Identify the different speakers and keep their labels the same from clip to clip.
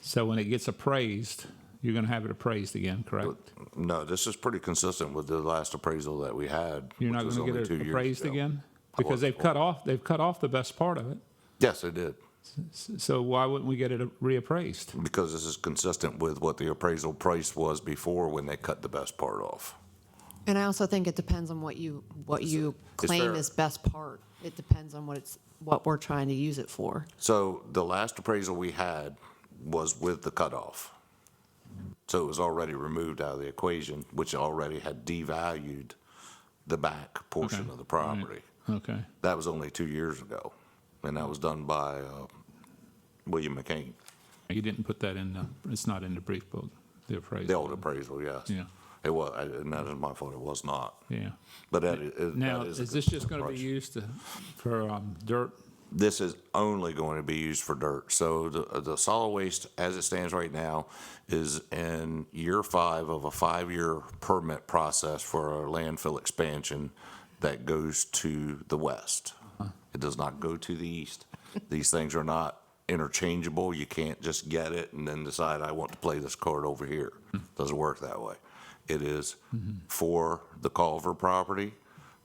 Speaker 1: So when it gets appraised, you're going to have it appraised again, correct?
Speaker 2: No, this is pretty consistent with the last appraisal that we had.
Speaker 1: You're not
Speaker 2: which was
Speaker 1: going to
Speaker 2: only
Speaker 1: get
Speaker 2: two
Speaker 1: it
Speaker 2: years
Speaker 1: appraised
Speaker 2: ago.
Speaker 1: again? Because they've cut off, they've cut off the best part of it.
Speaker 2: Yes, it did,
Speaker 1: So why wouldn't we get it reappraised?
Speaker 2: because this is consistent with what the appraisal price was before when they cut the best part off.
Speaker 3: And I also think it depends on what you, what you claim
Speaker 2: there-
Speaker 3: is best part. It depends on what it's, what we're trying to use it for.
Speaker 2: So the last appraisal we had was with the cutoff. So it was already removed out of the equation, which already had devalued the back portion
Speaker 1: Okay. Mm-hmm.
Speaker 2: of the property.
Speaker 1: Okay,
Speaker 2: That was only two years ago, and that was done by uh, William McCain,
Speaker 1: you didn't put that in the, it's not in the brief book, the appraisal.
Speaker 2: the old appraisal, yes.
Speaker 1: Yeah.
Speaker 2: It was, I- and that is my fault, it was not.
Speaker 1: Yeah.
Speaker 2: But that is. that
Speaker 1: Now,
Speaker 2: a
Speaker 1: is this just going to be
Speaker 2: consistent
Speaker 1: used to, for um, dirt?
Speaker 2: approach. This is only going to be used for dirt. So the, the solid waste, as it stands right now, is in year five of a five-year permit process for a landfill expansion that goes to the west. It does not go to the east. These things are not interchangeable. You can't just get it and then decide, I want to play this card over here. Doesn't work that way. It is for the Culver property.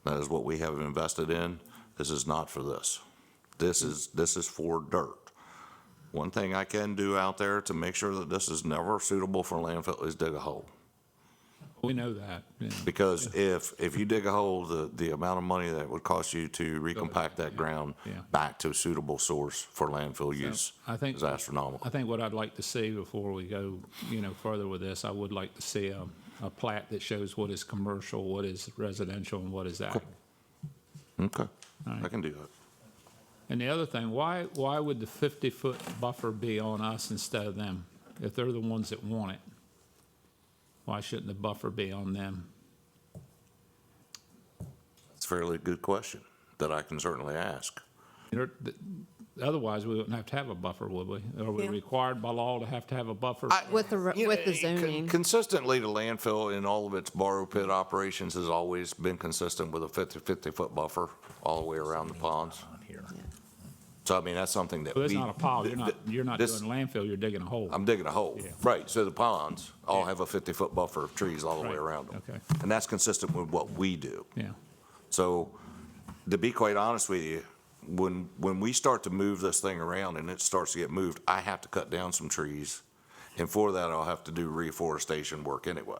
Speaker 2: That is what we have invested in. This is not for this. This is, this is for dirt. One thing I can do out there to make sure that this is never suitable for landfill is dig a hole.
Speaker 1: We know that. yeah.
Speaker 2: Because if, if you dig a hole, the, the amount of money that would cost you to recompact that ground
Speaker 1: Yeah.
Speaker 2: back to a suitable source for landfill use
Speaker 1: I think-
Speaker 2: is astronomical.
Speaker 1: I think what I'd like to see before we go, you know, further with this, I would like to see a, a plat that shows what is commercial, what is residential, and what is ag.
Speaker 2: Okay, I can do that.
Speaker 1: And the other thing, why, why would the 50-foot buffer be on us instead of them? If they're the ones that want it, why shouldn't the buffer be on them?
Speaker 2: It's a fairly good question that I can certainly ask.
Speaker 1: You're- th- Otherwise, we wouldn't have to have a buffer, would we? Are we
Speaker 3: Yeah.
Speaker 1: required by law to have to have a buffer?
Speaker 3: With the,
Speaker 2: You
Speaker 3: with the
Speaker 2: know, con-
Speaker 3: zoning,
Speaker 2: Consistently, the landfill in all of its borrow pit operations has always been consistent with a 50, 50-foot buffer all the way around the ponds. So I mean, that's something that.
Speaker 1: Well, that's
Speaker 2: we-
Speaker 1: not a pile, you're not,
Speaker 2: th- th-
Speaker 1: you're not doing
Speaker 2: this-
Speaker 1: landfill, you're digging a hole.
Speaker 2: I'm digging a hole. Right, so the ponds all have a 50-foot buffer of trees all the way
Speaker 1: Right,
Speaker 2: around them.
Speaker 1: okay.
Speaker 2: And that's consistent with what we do.
Speaker 1: Yeah,
Speaker 2: So to be quite honest with you, when, when we start to move this thing around and it starts to get moved, I have to cut down some trees. And for that, I'll have to do reforestation work anyway.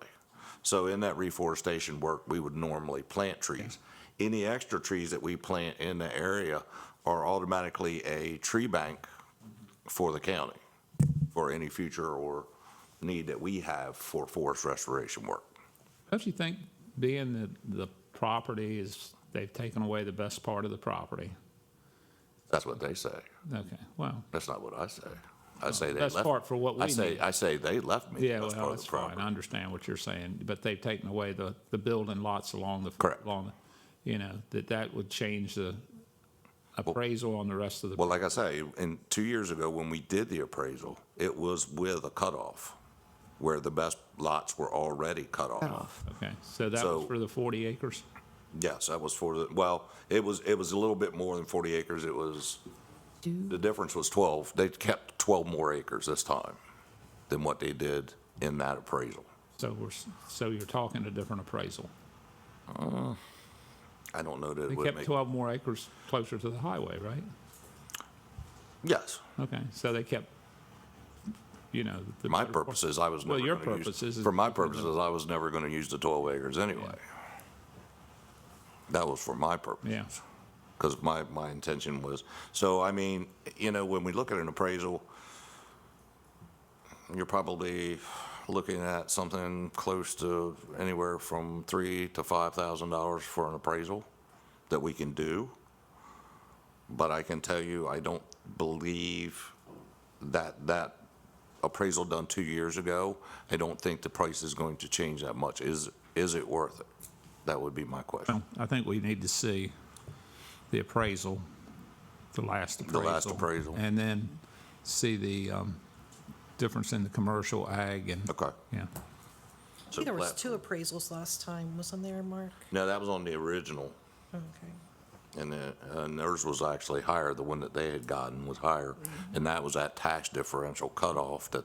Speaker 2: So in that reforestation work, we would normally plant trees. Any extra trees that we plant in the area are automatically a tree bank for the county for any future or need that we have for forest restoration work.
Speaker 1: don't you think being the, the property is, they've taken away the best part of the property?
Speaker 2: That's what they say.
Speaker 1: Okay, well,
Speaker 2: That's not what I say. I say they
Speaker 1: That's
Speaker 2: left.
Speaker 1: part for what
Speaker 2: I
Speaker 1: we
Speaker 2: say,
Speaker 1: need.
Speaker 2: I say they left me.
Speaker 1: yeah, well,
Speaker 2: That's part of
Speaker 1: that's
Speaker 2: the
Speaker 1: fine, I
Speaker 2: problem.
Speaker 1: understand what you're saying, but they've taken away the, the building lots along the.
Speaker 2: Correct.
Speaker 1: Along, the- you know, that that would change the appraisal on the rest of the.
Speaker 2: Well, like I say, in two years ago, when we did the appraisal, it was with a cutoff where the best lots were already cut off.
Speaker 1: Okay, so that was
Speaker 2: So-
Speaker 1: for the 40 acres?
Speaker 2: Yes, that was for the, well, it was, it was a little bit more than 40 acres. It was,
Speaker 3: do,
Speaker 2: the difference was 12. They kept 12 more acres this time than what they did in that appraisal.
Speaker 1: So we're, s- so you're talking a different appraisal.
Speaker 2: I don't know that
Speaker 1: They
Speaker 2: it would
Speaker 1: kept
Speaker 2: make.
Speaker 1: 12 more acres closer to the highway, right?
Speaker 2: Yes.
Speaker 1: Okay, so they kept, you know. the
Speaker 2: My
Speaker 1: better part-
Speaker 2: purposes, I was
Speaker 1: Well,
Speaker 2: never
Speaker 1: your
Speaker 2: gonna use-
Speaker 1: purposes is-
Speaker 2: For my purposes, I was never gonna use the twelve acres anyway. That was for my purpose.
Speaker 1: Yeah.
Speaker 2: Because my, my intention was, so I mean, you know, when we look at an appraisal, you're probably looking at something close to anywhere from three to five thousand dollars for an appraisal that we can do. But I can tell you, I don't believe that that appraisal done two years ago, I don't think the price is going to change that much. Is, is it worth it? That would be my question.
Speaker 1: I think we need to see the appraisal, the last appraisal.
Speaker 2: last appraisal.
Speaker 1: And then see the um, difference in the commercial ag and.
Speaker 2: Okay.
Speaker 1: Yeah,
Speaker 4: I think there was
Speaker 2: Plat-
Speaker 4: two appraisals last time, wasn't there, Mark?
Speaker 2: No, that was on the original,
Speaker 4: Okay.
Speaker 2: and then, and theirs was actually higher. The one that they had gotten was higher, and that was that tax differential cutoff that